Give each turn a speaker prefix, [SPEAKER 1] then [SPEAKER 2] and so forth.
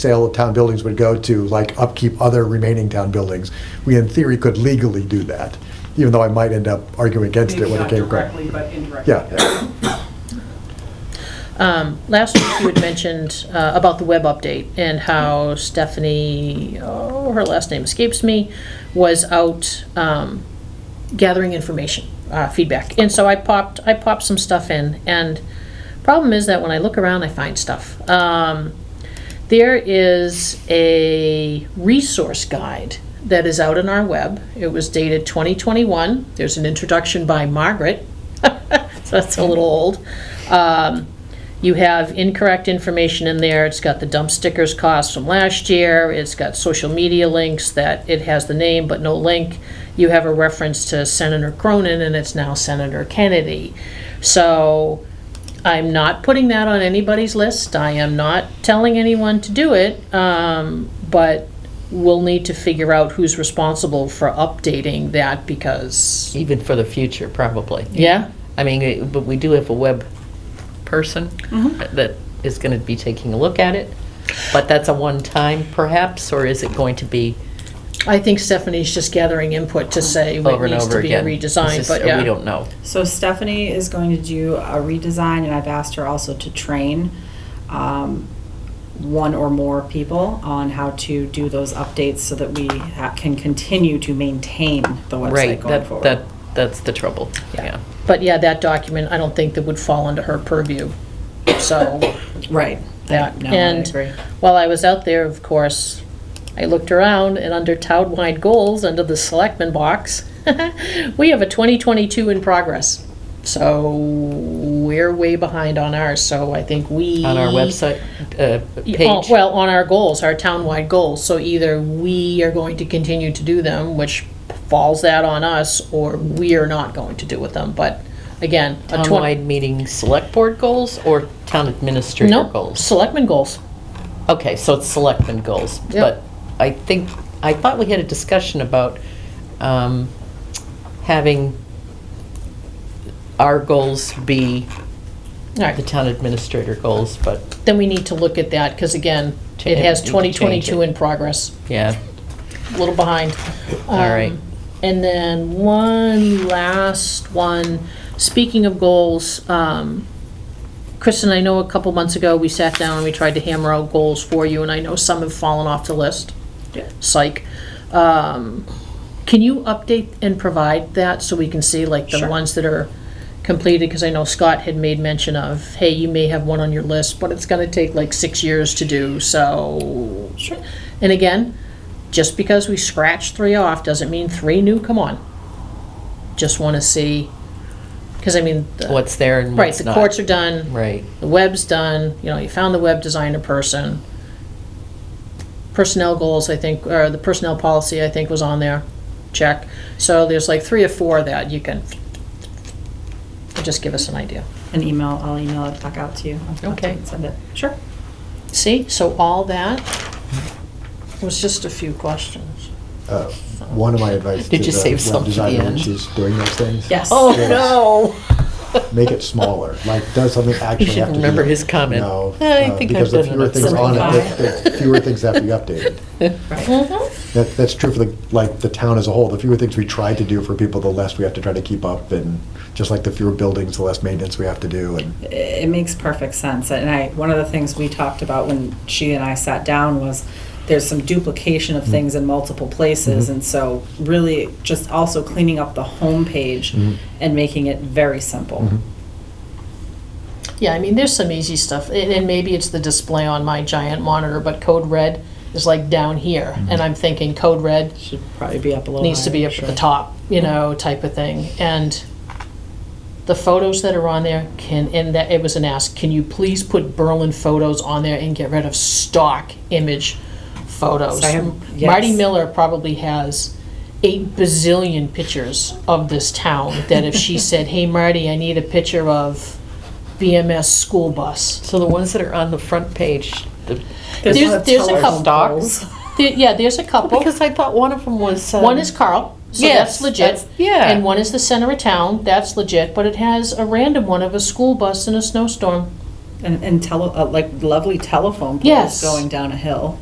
[SPEAKER 1] sale of town buildings would go to, like upkeep other remaining town buildings. We in theory could legally do that, even though I might end up arguing against it
[SPEAKER 2] Maybe
[SPEAKER 1] when it
[SPEAKER 2] not
[SPEAKER 1] came.
[SPEAKER 2] directly, but indirectly.
[SPEAKER 1] Yeah,
[SPEAKER 3] Um, Last week, you had mentioned uh, about the web update and how Stephanie, oh, her last name escapes me, was out um, gathering information, uh, feedback. And so I popped, I popped some stuff in, and problem is that when I look around, I find stuff. Um, There is a resource guide that is out on our web. It was dated 2021. There's an introduction by Margaret, so that's a little old. Um, you have incorrect information in there. It's got the dump stickers cost from last year. It's got social media links that it has the name but no link. You have a reference to Senator Cronin and it's now Senator Kennedy. So I'm not putting that on anybody's list. I am not telling anyone to do it. Um, but we'll need to figure out who's responsible for updating that because,
[SPEAKER 4] Even for the future, probably.
[SPEAKER 3] yeah?
[SPEAKER 4] I mean, we- but we do have a web person
[SPEAKER 3] Mm-hmm.
[SPEAKER 4] that is going to be taking a look at it, but that's a one-time perhaps, or is it going to be
[SPEAKER 3] I think Stephanie's just gathering input to say what
[SPEAKER 4] over and
[SPEAKER 3] needs to
[SPEAKER 4] over
[SPEAKER 3] be a
[SPEAKER 4] again? It's
[SPEAKER 3] redesign,
[SPEAKER 4] just-
[SPEAKER 3] but yeah.
[SPEAKER 4] We don't know.
[SPEAKER 5] So Stephanie is going to do a redesign, and I've asked her also to train um, one or more people on how to do those updates so that we ha- can continue to maintain the
[SPEAKER 4] Right,
[SPEAKER 5] website going
[SPEAKER 4] that,
[SPEAKER 5] forward.
[SPEAKER 4] that, that's the trouble, yeah.
[SPEAKER 3] But yeah, that document, I don't think that would fall under her purview. So,
[SPEAKER 5] Right. I-
[SPEAKER 3] Yeah,
[SPEAKER 5] No, I
[SPEAKER 3] and-
[SPEAKER 5] agree.
[SPEAKER 3] while I was out there, of course, I looked around and under town-wide goals, under the selectmen box, we have a 2022 in progress. So we're way behind on ours, so I think we.
[SPEAKER 4] On our website, uh,
[SPEAKER 3] Yeah, on-
[SPEAKER 4] page.
[SPEAKER 3] oh, Well, on our goals, our townwide goals, so either we are going to continue to do them, which falls that on us, or we are not going to do with them, but again. a twen-
[SPEAKER 4] Townwide meeting select board goals or town administrator
[SPEAKER 3] No,
[SPEAKER 4] goals?
[SPEAKER 3] selectmen goals.
[SPEAKER 4] Okay, so it's selectmen goals,
[SPEAKER 3] Yep.
[SPEAKER 4] but I think, I thought we had a discussion about um, having our goals be
[SPEAKER 3] All
[SPEAKER 4] the
[SPEAKER 3] right,
[SPEAKER 4] town administrator goals, but
[SPEAKER 3] then we need to look at that, because again, it
[SPEAKER 4] Change-
[SPEAKER 3] has
[SPEAKER 4] you can change
[SPEAKER 3] 2022
[SPEAKER 4] it.
[SPEAKER 3] in progress,
[SPEAKER 4] yeah,
[SPEAKER 3] a little behind.
[SPEAKER 4] all right.
[SPEAKER 3] Um, And then one last one, speaking of goals, um, Kristen, I know a couple months ago, we sat down and we tried to hammer out goals for you, and I know some have fallen off the list.
[SPEAKER 5] Yeah.
[SPEAKER 3] Psych. Um, Can you update and provide that so we can see like the
[SPEAKER 5] Sure.
[SPEAKER 3] ones that are completed? Because I know Scott had made mention of, hey, you may have one on your list, but it's gonna take like six years to do, so.
[SPEAKER 5] Sure.
[SPEAKER 3] And again, just because we scratched three off doesn't mean three new come on. Just wanna see, because I mean, the-
[SPEAKER 4] What's there and
[SPEAKER 3] right,
[SPEAKER 4] what's
[SPEAKER 3] the
[SPEAKER 4] not.
[SPEAKER 3] courts are done.
[SPEAKER 4] Right,
[SPEAKER 3] The web's done, you know, you found the web designer person. Personnel goals, I think, or the personnel policy, I think, was on there, check. So there's like three or four that you can, just give us an idea.
[SPEAKER 5] An email, I'll email it back out to you. I'll
[SPEAKER 4] Okay.
[SPEAKER 5] Send it. Sure.
[SPEAKER 3] See, so all that was just a few questions.
[SPEAKER 1] Uh, One of my advice to
[SPEAKER 4] Did you save
[SPEAKER 1] the
[SPEAKER 4] some
[SPEAKER 1] web
[SPEAKER 4] for the
[SPEAKER 1] designer when
[SPEAKER 4] end?
[SPEAKER 1] she's doing those things.
[SPEAKER 5] Yes.
[SPEAKER 4] Oh,
[SPEAKER 1] Yes.
[SPEAKER 4] no.
[SPEAKER 1] Make it smaller, like, does something actually
[SPEAKER 4] should
[SPEAKER 1] have to be-
[SPEAKER 4] remember his comment.
[SPEAKER 1] No.
[SPEAKER 4] I
[SPEAKER 1] uh,
[SPEAKER 4] think
[SPEAKER 1] because
[SPEAKER 4] I've
[SPEAKER 1] the
[SPEAKER 4] done it
[SPEAKER 1] fewer
[SPEAKER 4] at
[SPEAKER 1] things
[SPEAKER 4] some
[SPEAKER 1] on
[SPEAKER 5] point.
[SPEAKER 1] it, the- the Fewer things have to be updated.
[SPEAKER 2] Mm-hmm.
[SPEAKER 1] That, that's true for the, like, the town as a whole. The fewer things we try to do for people, the less we have to try to keep up. And just like the fewer buildings, the less maintenance we have to do. And
[SPEAKER 5] it makes perfect sense. And I, one of the things we talked about when she and I sat down was there's some duplication of things in multiple places. And so really just also cleaning up the homepage
[SPEAKER 1] Mhm.
[SPEAKER 5] and making it very simple.
[SPEAKER 3] Yeah, I mean, there's some easy stuff, and, and maybe it's the display on my giant monitor, but code red is like down here, and I'm thinking code red
[SPEAKER 5] Should probably be up a little
[SPEAKER 3] needs to be
[SPEAKER 5] higher,
[SPEAKER 3] up at
[SPEAKER 5] sure.
[SPEAKER 3] the top, you know, type of thing. And the photos that are on there can, and that, it was an ask, can you please put Berlin photos on there and get rid of stock image photos?
[SPEAKER 5] So I have-
[SPEAKER 3] Marty
[SPEAKER 5] yes.
[SPEAKER 3] Miller probably has eight bazillion pictures of this town that if she said, hey, Marty, I need a picture of BMS school bus.
[SPEAKER 4] So the ones that are on the front page, the-
[SPEAKER 3] There's-
[SPEAKER 5] no
[SPEAKER 3] there's a
[SPEAKER 5] telephone
[SPEAKER 3] couple
[SPEAKER 5] poles.
[SPEAKER 3] There- Yeah, there's a couple.
[SPEAKER 4] because I thought one of them was. um,
[SPEAKER 3] One is Carl, so that's
[SPEAKER 4] Yes,
[SPEAKER 3] legit.
[SPEAKER 4] that's- yeah.
[SPEAKER 3] And one is the center of town, that's legit, but it has a random one of a school bus in a snowstorm.
[SPEAKER 5] and, and tele, uh, like lovely telephone poles
[SPEAKER 3] Yes.
[SPEAKER 5] going down a hill.